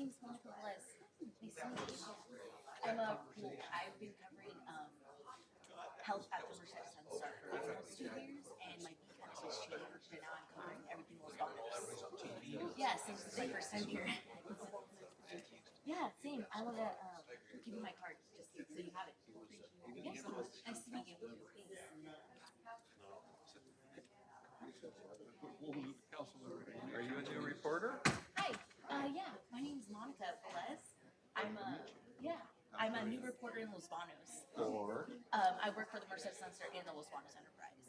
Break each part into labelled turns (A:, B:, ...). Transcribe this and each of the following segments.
A: was, nice to meet you. I'm a, I've been covering, um, health at the Merced Sun for almost two years, and my beat kind of has changed, and now I'm covering everything with bottles. Yes, this is my first time here. Yeah, same, I wanna, um, give you my card, just so you have it. Yes, nice to meet you, thanks.
B: Are you a new reporter?
A: Hi, uh, yeah, my name's Monica Velez. I'm a, yeah, I'm a new reporter in Los Banos.
B: Or?
A: Um, I work for the Merced Sun Star and the Los Banos Enterprise.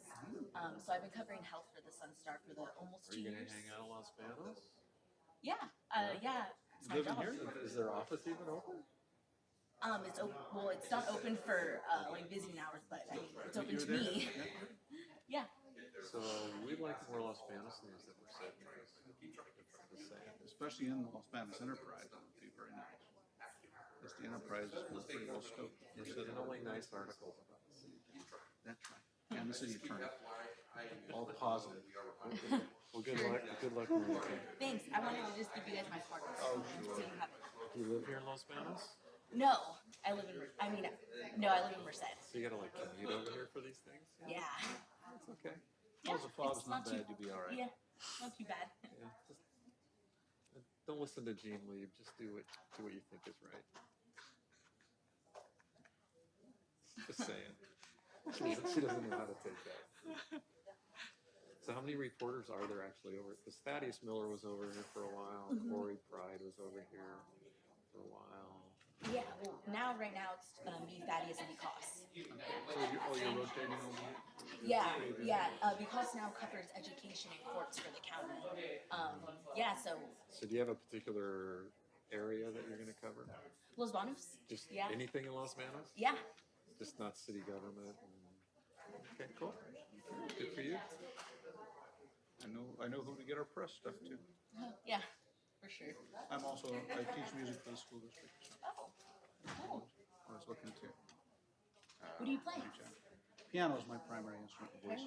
A: Um, so I've been covering health for the Sun Star for the almost
B: Are
A: two
B: you gonna
A: years.
B: hang out in Los Banos?
A: Yeah, uh, yeah, it's my
B: Living
A: job.
B: here? Is their office even open?
A: Um, it's open, well, it's not open for, uh, like visiting hours, but I mean, it's
B: But
A: open to
B: you're
A: me.
B: there.
A: Yeah,
B: So we'd like more Los Banos news that we're setting. It's the same.
C: especially in Los Banos Enterprise, it would be very nice. Because the Enterprise was pretty well scoped. for
B: There's
C: setting up.
B: only nice articles about the city.
C: That's right. And the city attorney.
B: All positive. Well, good luck, good luck. Monica.
A: thanks. I wanted to just give you guys my card.
B: Oh,
A: So you have it.
B: Do you live here in Los Banos?
A: No, I live in, I mean, no, I live in Merced.
B: So you gotta like commute over here for these things?
A: Yeah.
B: It's okay.
A: Yeah,
B: As long as the fog's
A: it's not
B: not
A: too-
B: bad, you'll be all right.
A: Yeah, not too bad.
B: Yeah, just- uh, Don't listen to Gene Lieb, just do what, do what you think is right. Just saying. She doesn't, she doesn't know how to take that. So how many reporters are there actually over, because Thaddeus Miller was over here for a while,
A: Mhm.
B: Corey Pride was over here for a while.
A: Yeah, well, now, right now, it's uh, me, Thaddeus, and Vikas.
B: So you, oh, you're rotating over?
A: Yeah, yeah, uh, Vikas now covers education and courts for the county. Um, yeah, so
B: So do you have a particular area that you're gonna cover?
A: Los Banos,
B: Just
A: Yeah.
B: anything in Los Banos?
A: yeah,
B: Just not city government and, okay, cool. Good for you.
C: I know, I know who to get our press stuff to.
A: yeah, for sure.
C: I'm also, I teach music for the school district, so
A: Oh, cool.
C: I was looking to.
A: What do you play?
C: Piano's my primary instrument of voice.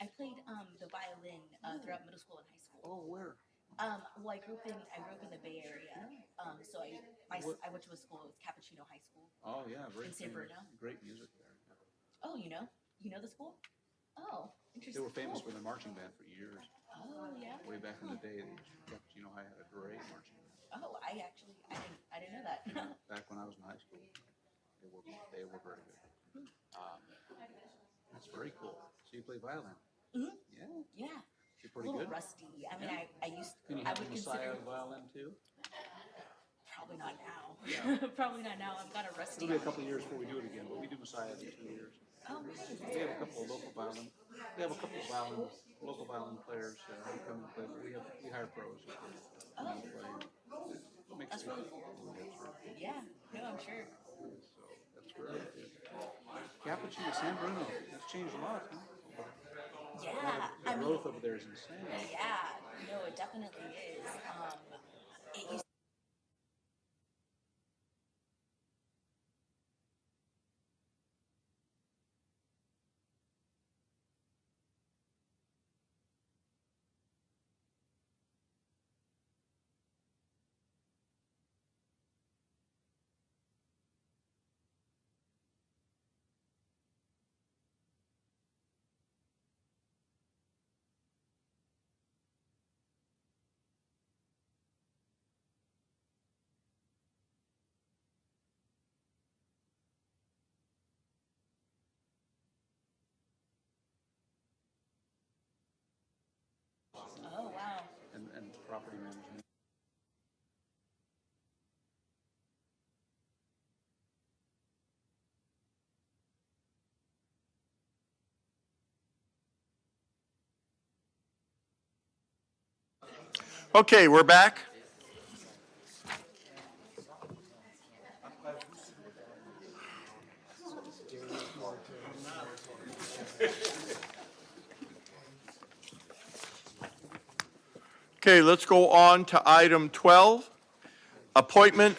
A: I played um, the violin uh, throughout middle school and high school.
C: Oh, where?
A: Um, well, I grew up in I grew up in the Bay Area, um, so I my, s- I went to a school. It was Cappuccino High School.
C: Oh, yeah, very,
A: In San
C: famous.
A: Bruno?
C: great music there.
A: Oh, you know, you know the school? Oh,
C: They
A: interesting.
C: were famous for
A: Cool.
C: their marching band for years.
A: Oh, yeah.
C: Way back in the day, the Cappuccino High had a great marching band.
A: Oh, I actually, I didn't, I didn't know that.
C: back when I was in high school. They were, they were very good. Um, that's very cool. So you play violin?
A: Mhm.
C: Yeah,
A: yeah, a
C: you're pretty
A: little
C: good.
A: rusty. I mean, I, I used,
C: Can you
A: I
C: have
A: would
C: a Messiah
A: consider
C: violin too?
A: probably not now. probably not now. I'm kind of rusty.
C: It'll be a couple of years before we do it again, but we do Messiah in two years.
A: Oh, right.
C: We have a couple of local violin, we have a couple of violin, local violin players uh, who come and play, but we have, we hire pros.
A: Oh,
C: Makes
A: that's
C: it-
A: really cool. Yeah. No, I'm sure.
C: So that's great. Cappuccino, San Bruno, that's changed a lot, huh?
A: Yeah.
C: The
A: I mean,
C: growth over there is insane.
A: yeah. No, it definitely is. Um, it used Oh, wow.
C: and, and property management.
D: Okay, we're back. Okay, let's go on to item 12, appointment